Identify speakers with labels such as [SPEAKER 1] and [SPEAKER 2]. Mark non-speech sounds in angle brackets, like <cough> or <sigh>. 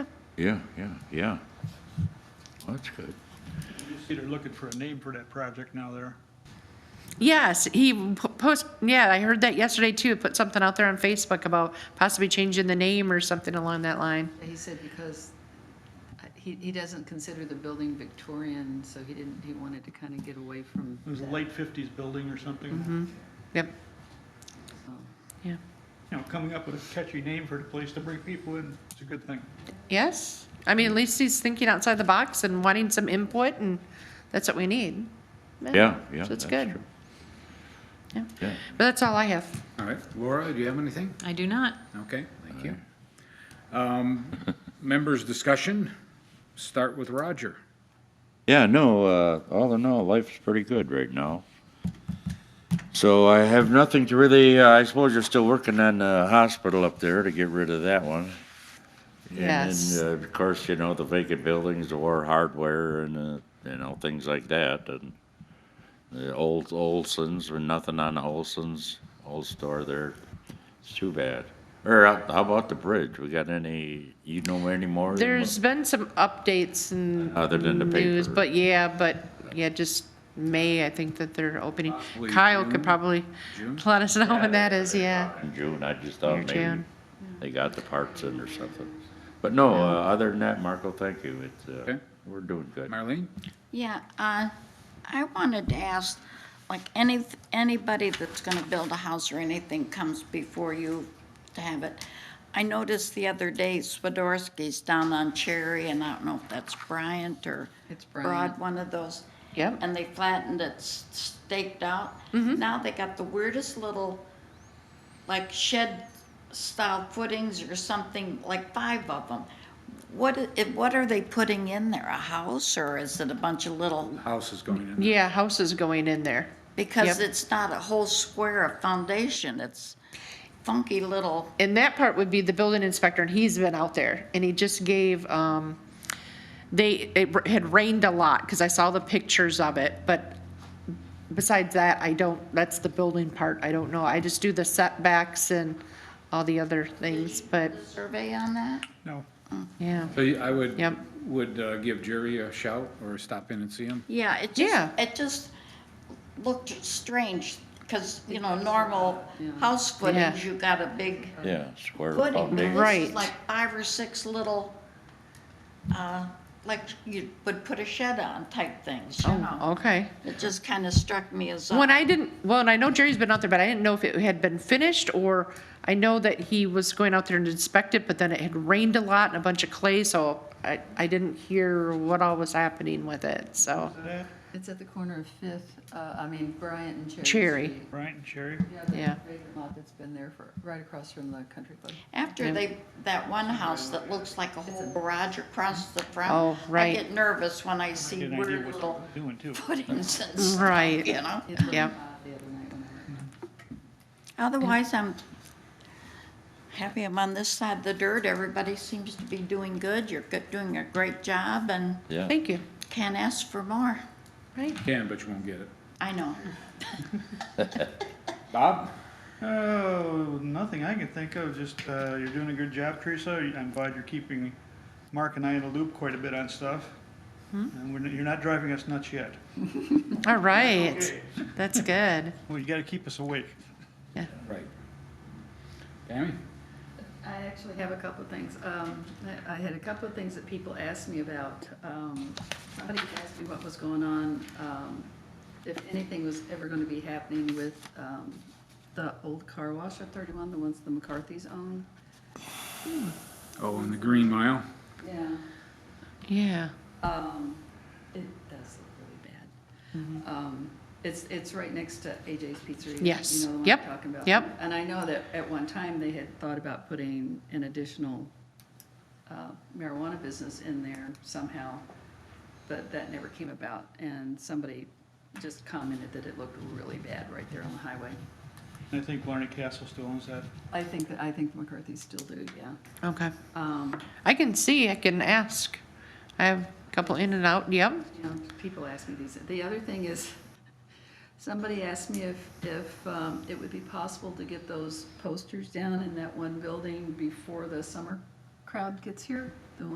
[SPEAKER 1] Yeah, yeah, yeah. Well, That's good.
[SPEAKER 2] They're looking for a name for that project now there.
[SPEAKER 3] Yes, he p- post, yeah, I heard that yesterday too, put something out there on Facebook about possibly changing the name or something along that line.
[SPEAKER 4] He said because uh, he, he doesn't consider the building Victorian, so he didn't, he wanted to kind of get away from
[SPEAKER 2] It was a
[SPEAKER 4] that,
[SPEAKER 2] late 50s building or something.
[SPEAKER 3] Yep,
[SPEAKER 4] so.
[SPEAKER 3] yeah.
[SPEAKER 2] You know, coming up with a catchy name for the place to bring people in, it's a good thing.
[SPEAKER 3] Yes, I mean, at least he's thinking outside the box and wanting some input and that's what we need.
[SPEAKER 1] Yeah, yeah.
[SPEAKER 3] So it's
[SPEAKER 1] that's
[SPEAKER 3] good.
[SPEAKER 1] true.
[SPEAKER 3] Yeah.
[SPEAKER 1] Yeah.
[SPEAKER 3] But that's all I have.
[SPEAKER 5] All right, Laura, do you have anything?
[SPEAKER 6] I do not.
[SPEAKER 5] Okay, thank you. Um, <laughs> Members' discussion, start with Roger.
[SPEAKER 1] Yeah, no, uh, all in all, life's pretty good right now. So I have nothing to really, uh, I suppose you're still working on the hospital up there to get rid of that one.
[SPEAKER 3] Yes.
[SPEAKER 1] And, then, uh, of course, you know, the vacant buildings, the war hardware and, uh, you know, things like that. And the old Olson's, or nothing on the Olson's, old store there. It's too bad. Or uh, how about the bridge? We got any, you know any more? than what-
[SPEAKER 3] There's been some updates and
[SPEAKER 1] Other than Uh, the
[SPEAKER 3] news,
[SPEAKER 1] paper.
[SPEAKER 3] but yeah, but yeah, just May, I think that they're opening.
[SPEAKER 5] Possibly
[SPEAKER 3] Kyle could
[SPEAKER 5] June?
[SPEAKER 3] probably
[SPEAKER 5] June?
[SPEAKER 3] let us know when that
[SPEAKER 1] they-
[SPEAKER 3] is,
[SPEAKER 1] they
[SPEAKER 3] yeah.
[SPEAKER 1] got In June, I just thought
[SPEAKER 3] Near
[SPEAKER 1] maybe
[SPEAKER 3] June.
[SPEAKER 1] they got the parts in or something. But no, uh, other than that, Marco, thank you. It's, uh,
[SPEAKER 5] Okay.
[SPEAKER 1] we're doing good.
[SPEAKER 5] Marlene?
[SPEAKER 7] Yeah, uh, I wanted to ask, like, any, anybody that's gonna build a house or anything comes before you to have it. I noticed the other day Swiderski's down on Cherry, and I don't know if that's Bryant or
[SPEAKER 4] It's Bryant.
[SPEAKER 7] Broad, one of those.
[SPEAKER 3] Yep.
[SPEAKER 7] And they flattened it, s- staked out. Now they got the weirdest little, like shed-style footings or something, like five of them. What, i- if- what are they putting in there, a house, or is it a bunch of little,
[SPEAKER 5] House is going in.
[SPEAKER 3] Yeah, houses going in there.
[SPEAKER 7] because
[SPEAKER 3] Yep.
[SPEAKER 7] it's not a whole square of foundation, it's funky little,
[SPEAKER 3] And that part would be the building inspector, and he's been out there, and he just gave, um, they, it had rained a lot, because I saw the pictures of it, but besides that, I don't, that's the building part, I don't know. I just do the setbacks and all the other things, but,
[SPEAKER 7] survey on that?
[SPEAKER 2] No,
[SPEAKER 3] yeah.
[SPEAKER 5] So you- I would,
[SPEAKER 3] Yep.
[SPEAKER 5] would uh, give Jerry a shout or stop in and see him?
[SPEAKER 7] Yeah, it
[SPEAKER 3] Yeah.
[SPEAKER 7] just, it just looked strange, because, you know, normal house footings,
[SPEAKER 3] Yeah.
[SPEAKER 7] you got a big
[SPEAKER 1] Yeah, square
[SPEAKER 7] footing. but
[SPEAKER 1] foundation.
[SPEAKER 7] This
[SPEAKER 3] Right.
[SPEAKER 7] is like five or six little, uh, like you would put a shed on type things, you know?
[SPEAKER 3] Oh, okay.
[SPEAKER 7] It just kind of struck me as. uh,
[SPEAKER 3] When
[SPEAKER 7] odd.
[SPEAKER 3] I didn't, well, and I know Jerry's been out there, but I didn't know if it had been finished, or I know that he was going out there and inspect it, but then it had rained a lot and a bunch of clay, so I, I didn't hear what all was happening with it, so.
[SPEAKER 2] that,
[SPEAKER 4] It's at the corner of Fifth, uh, I mean Bryant and Cherry.
[SPEAKER 3] Cherry.
[SPEAKER 4] Street.
[SPEAKER 2] Bryant and Sherry.
[SPEAKER 4] Yeah, the
[SPEAKER 3] Yeah.
[SPEAKER 4] vacant lot that's been there for, right across from the country club.
[SPEAKER 7] After they, that one house that looks like a whole garage across the front.
[SPEAKER 3] Oh, right.
[SPEAKER 7] I get nervous when I see
[SPEAKER 2] Good idea
[SPEAKER 7] weird
[SPEAKER 2] what
[SPEAKER 7] little
[SPEAKER 2] they're doing too.
[SPEAKER 7] footings <laughs> and stuff,
[SPEAKER 3] Right.
[SPEAKER 7] you know?
[SPEAKER 4] It looked
[SPEAKER 3] Yeah.
[SPEAKER 4] odd uh, The other night when I went.
[SPEAKER 7] Otherwise, I'm happy I'm on this side of the dirt. Everybody seems to be doing good. You're good- doing a great job and
[SPEAKER 1] Yeah.
[SPEAKER 3] Thank you.
[SPEAKER 7] can't ask for more.
[SPEAKER 3] Right.
[SPEAKER 5] Can, but you won't get it.
[SPEAKER 7] I know.
[SPEAKER 5] Bob?
[SPEAKER 2] Oh, nothing I can think of, just, uh, you're doing a good job, Teresa. I'm glad you're keeping Mark and I in the loop quite a bit on stuff. And we're, you're not driving us nuts yet.
[SPEAKER 3] All right. That's good.
[SPEAKER 2] Well, you gotta keep us awake.
[SPEAKER 5] Right. Tammy?
[SPEAKER 4] I actually have a couple of things. Um, I I had a couple of things that people asked me about. Um, Somebody asked me what was going on, um, if anything was ever going to be happening with um, the old car wash at 31, the ones the McCarthys own.
[SPEAKER 5] Oh, and the Green Mile?
[SPEAKER 4] Yeah.
[SPEAKER 3] Yeah.
[SPEAKER 4] Um, it does look really bad. Um, it's, it's right next to AJ's Pizzeria.
[SPEAKER 3] Yes.
[SPEAKER 4] You know the one I'm
[SPEAKER 3] Yep.
[SPEAKER 4] talking about.
[SPEAKER 3] Yep.
[SPEAKER 4] And I know that at one time they had thought about putting an additional uh, marijuana business in there somehow, but that never came about. And somebody just commented that it looked really bad right there on the highway.
[SPEAKER 2] And I think Larned Castle still owns that.
[SPEAKER 4] I think, that I think McCarthy still do, yeah.
[SPEAKER 3] Okay.
[SPEAKER 4] Um,
[SPEAKER 3] I can see, I can ask. I have a couple in and out. Yep.
[SPEAKER 4] you know, people ask me these. The other thing is, somebody asked me if, if um, it would be possible to get those posters down in that one building before the summer crowd gets here, the